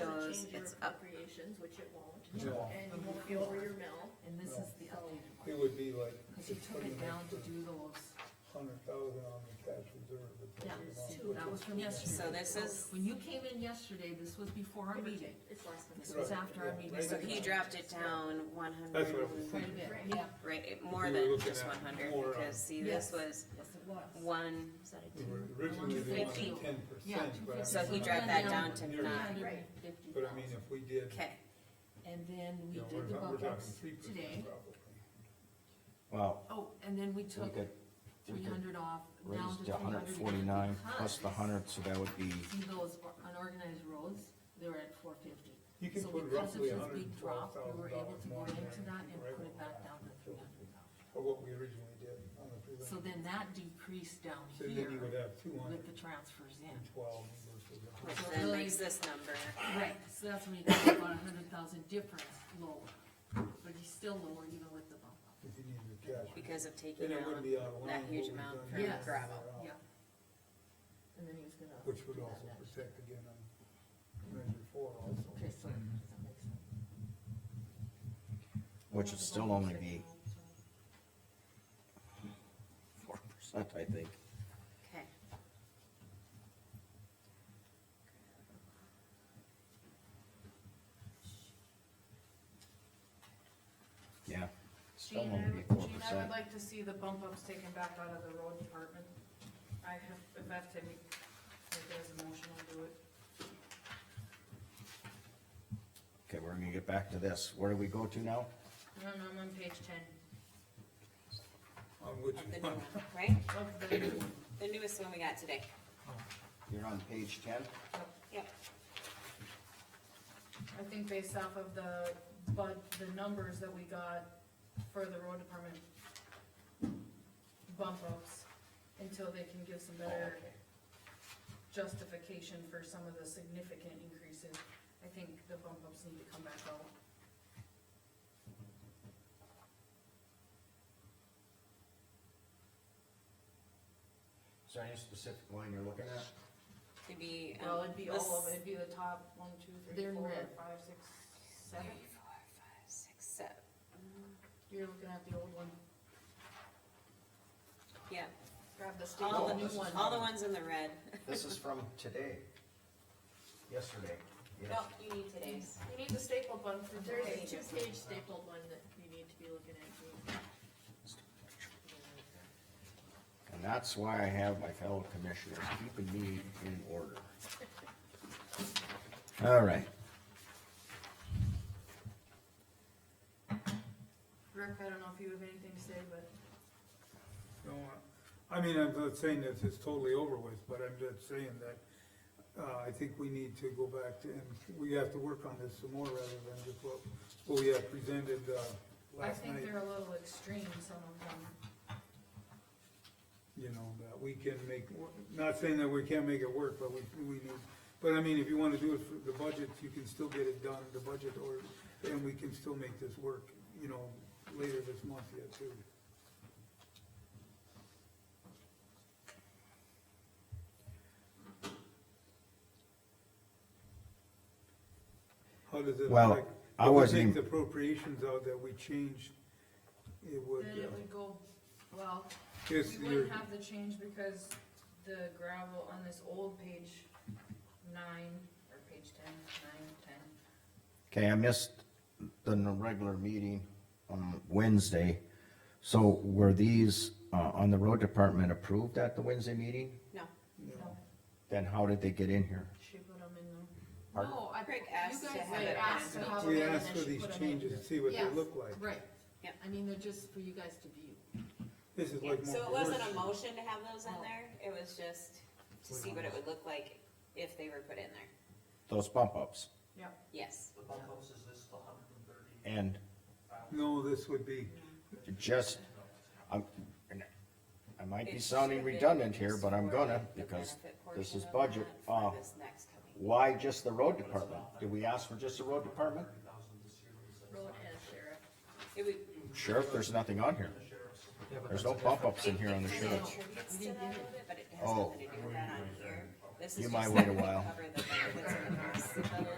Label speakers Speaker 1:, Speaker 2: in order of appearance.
Speaker 1: shows it's up,
Speaker 2: Appropriations, which it won't,
Speaker 3: Yeah.
Speaker 2: and you won't be over your mill.
Speaker 4: And this is the updated
Speaker 3: It
Speaker 4: one,
Speaker 3: would be like,
Speaker 4: because
Speaker 3: to
Speaker 4: you
Speaker 3: put
Speaker 4: took
Speaker 3: an
Speaker 4: it down to
Speaker 3: extra
Speaker 4: do those,
Speaker 3: hundred thousand on the cash reserve. if
Speaker 4: yeah,
Speaker 3: they want to
Speaker 2: two.
Speaker 3: put
Speaker 4: that
Speaker 3: it.
Speaker 4: was from yesterday.
Speaker 1: So this is-
Speaker 4: When you came in yesterday, this was before our
Speaker 2: Give or
Speaker 4: meeting,
Speaker 2: take. It's last
Speaker 4: this
Speaker 2: month.
Speaker 4: was
Speaker 3: Right,
Speaker 4: after our
Speaker 3: yeah,
Speaker 4: meeting.
Speaker 3: right.
Speaker 1: so he drafted down one
Speaker 5: That's
Speaker 1: hundred,
Speaker 5: what I was
Speaker 4: Quite a bit,
Speaker 2: Right.
Speaker 4: yeah,
Speaker 1: right, it- more
Speaker 5: We were
Speaker 1: than
Speaker 5: looking
Speaker 1: just
Speaker 5: at
Speaker 1: one hundred,
Speaker 5: more, uh,
Speaker 1: because see, this
Speaker 4: Yes.
Speaker 1: was
Speaker 4: yes, it was.
Speaker 1: one, is that a
Speaker 3: We
Speaker 1: two?
Speaker 3: were Originally, they wanted
Speaker 1: 150.
Speaker 3: ten
Speaker 4: Yeah,
Speaker 3: percent, but I
Speaker 4: 250.
Speaker 1: So he
Speaker 3: mean,
Speaker 1: dropped that down to
Speaker 3: You're-
Speaker 1: nine,
Speaker 4: $950,000.
Speaker 3: but I mean, if we did,
Speaker 1: okay,
Speaker 4: And then we
Speaker 3: you know,
Speaker 4: did
Speaker 3: we're
Speaker 4: the
Speaker 3: not- we're
Speaker 4: bump
Speaker 3: talking
Speaker 4: ups
Speaker 3: three
Speaker 4: today,
Speaker 3: percent probably.
Speaker 6: Wow,
Speaker 4: oh, and then we
Speaker 6: we
Speaker 4: took
Speaker 6: could, we
Speaker 4: three
Speaker 6: could
Speaker 4: hundred off, down
Speaker 6: raise
Speaker 4: to three
Speaker 6: to
Speaker 4: hundred.
Speaker 6: hundred forty-nine plus the hundred, so that would be,
Speaker 4: See those or- unorganized roads, they were at four fifty.
Speaker 3: You can
Speaker 4: So
Speaker 3: put
Speaker 4: because of
Speaker 3: roughly
Speaker 4: this
Speaker 3: hundred and
Speaker 4: big
Speaker 3: twelve
Speaker 4: drop,
Speaker 3: thousand
Speaker 4: we were
Speaker 3: dollars
Speaker 4: able to go
Speaker 3: more
Speaker 4: into
Speaker 3: than
Speaker 4: that
Speaker 3: we
Speaker 4: and
Speaker 3: were
Speaker 4: put
Speaker 3: able
Speaker 4: it
Speaker 3: to
Speaker 4: back
Speaker 3: have
Speaker 4: down to three hundred thousand.
Speaker 3: Or what we originally did on the prelim.
Speaker 4: So then that decreased down
Speaker 3: So then you would
Speaker 4: here
Speaker 3: have two hundred
Speaker 4: with the transfers
Speaker 3: and
Speaker 4: in.
Speaker 3: twelve versus a
Speaker 1: which
Speaker 3: hundred.
Speaker 4: So
Speaker 1: then
Speaker 4: really-
Speaker 1: makes this number,
Speaker 4: Right, so that's when you got about a hundred thousand difference lower, but he's still lower even with the bump up.
Speaker 3: if you needed the cash.
Speaker 1: because of
Speaker 3: Then
Speaker 1: taking
Speaker 3: it
Speaker 1: out
Speaker 3: wouldn't be out of line.
Speaker 1: that huge
Speaker 3: what we've
Speaker 1: amount
Speaker 3: done
Speaker 1: for
Speaker 3: here
Speaker 4: Yes.
Speaker 1: gravel.
Speaker 3: and there
Speaker 4: Yeah,
Speaker 3: out,
Speaker 2: And then he was gonna.
Speaker 3: Oh. Which would
Speaker 2: do that
Speaker 3: also
Speaker 2: next.
Speaker 3: protect again on measure four also.
Speaker 4: okay, so that makes sense.
Speaker 6: which would still only be four percent, I think.
Speaker 1: Okay.
Speaker 6: Yeah.
Speaker 7: Gene,
Speaker 6: Still
Speaker 7: I
Speaker 6: only be
Speaker 7: would-
Speaker 6: four
Speaker 7: Gene, I would
Speaker 6: percent.
Speaker 7: like to see the bump ups taken back out of the road department. I have, if I have to make, make it as a motion, I'll do it.
Speaker 6: Okay, we're gonna get back to this. Where do we go to now?
Speaker 7: No, no, I'm on page ten.
Speaker 3: On which
Speaker 1: Of the new
Speaker 3: one?
Speaker 1: one, right?
Speaker 7: Of the,
Speaker 1: The newest one we got today.
Speaker 6: You're on page ten?
Speaker 1: Yep.
Speaker 7: I think based off of the, but, the numbers that we got for the road department bump ups, until they can give some
Speaker 6: Oh,
Speaker 7: better
Speaker 6: okay.
Speaker 7: justification for some of the significant increases, I think the bump ups need to come back out.
Speaker 6: Is there any specific line you're looking at?
Speaker 1: It'd be. um,
Speaker 7: Well, it'd be all of
Speaker 1: this-
Speaker 7: it, it'd be the top one, two, three,
Speaker 4: They're in
Speaker 7: four,
Speaker 4: red.
Speaker 7: five, six,
Speaker 1: Three,
Speaker 7: seven.
Speaker 1: four, five, six, seven.
Speaker 7: You're looking at the old one.
Speaker 1: Yeah,
Speaker 7: Grab the staple,
Speaker 1: all
Speaker 7: the
Speaker 1: the,
Speaker 7: new one.
Speaker 1: all the ones in the red.
Speaker 6: This is from today, yesterday. Yes.
Speaker 1: No, you need today's.
Speaker 7: You need the staple button for
Speaker 2: There's a
Speaker 7: today.
Speaker 2: two-page stapled one that you need to be looking at. too.
Speaker 6: And that's why I have my fellow commissioners keeping me in order. All right,
Speaker 7: Rick, I don't know if you have anything to say, but
Speaker 3: No, I I mean, I'm not saying that it's totally over with, but I'm just saying that, uh, I think we need to go back to, and we have to work on this some more rather than just what, what we have presented, uh,
Speaker 7: I
Speaker 3: last
Speaker 7: think
Speaker 3: night.
Speaker 7: they're a little extreme, some of them.
Speaker 3: You know, that we can make, not saying that we can't make it work, but we, we need, but I mean, if you wanna do it for the budget, you can still get it done, the budget, or, and we can still make this work, you know, later this month yet too. How does it affect?
Speaker 6: Well, I
Speaker 3: if we
Speaker 6: wasn't
Speaker 3: take
Speaker 6: even-
Speaker 3: The appropriations out that we changed, it would,
Speaker 7: Then it
Speaker 3: uh,
Speaker 7: would go, well,
Speaker 3: yes,
Speaker 7: we
Speaker 3: you're,
Speaker 7: wouldn't have the change because the gravel on this old page nine, or page ten, nine, ten,
Speaker 6: okay, I missed the n- regular meeting on Wednesday. So were these, uh, on the road department approved at the Wednesday meeting?
Speaker 1: No,
Speaker 3: you know,
Speaker 6: Then how did they get in here?
Speaker 7: she put them in there.
Speaker 6: Pardon?
Speaker 7: No, I,
Speaker 1: Rick
Speaker 7: you
Speaker 1: asked
Speaker 7: guys
Speaker 1: to have
Speaker 7: had
Speaker 1: it
Speaker 7: asked to
Speaker 1: added.
Speaker 7: have
Speaker 3: we
Speaker 7: them in,
Speaker 3: asked
Speaker 7: and
Speaker 3: for
Speaker 7: she
Speaker 3: these
Speaker 7: put 'em in.
Speaker 3: changes to see what they
Speaker 4: Yes.
Speaker 3: look like.
Speaker 4: Right.
Speaker 1: Yep.
Speaker 4: I mean, they're just for you guys to view.
Speaker 3: This is
Speaker 1: yeah,
Speaker 3: like more.
Speaker 1: so it wasn't a
Speaker 3: work.
Speaker 1: motion to have those in there, it was just to see what it would look like if they were put in there.
Speaker 6: Those bump ups
Speaker 1: Yes,
Speaker 8: The bump ups is this the hundred and thirty?
Speaker 6: and
Speaker 3: No, this would be,
Speaker 6: just, I'm, I might be
Speaker 1: It
Speaker 6: sounding
Speaker 1: should be
Speaker 6: redundant here,
Speaker 1: just
Speaker 6: but I'm
Speaker 1: for
Speaker 6: gonna,
Speaker 1: the
Speaker 6: because
Speaker 1: benefit portion
Speaker 6: this is
Speaker 1: of
Speaker 6: budget.
Speaker 1: that
Speaker 6: Uh,
Speaker 1: For this next coming.
Speaker 6: why just the road department? Did we ask for just the road department?
Speaker 8: Thirty thousand this year was.
Speaker 2: Road and sheriff.
Speaker 1: It would-
Speaker 6: Sheriff, there's nothing on here.
Speaker 8: The sheriff's.
Speaker 6: There's no bump ups in here on the
Speaker 1: it
Speaker 6: sheriff.
Speaker 1: contributes to that a little bit, But it has
Speaker 6: Oh.
Speaker 1: nothing to do with that on here. This is
Speaker 6: You might
Speaker 1: just
Speaker 6: wait a
Speaker 1: to
Speaker 6: while.
Speaker 1: Cover the benefits and the costs of those.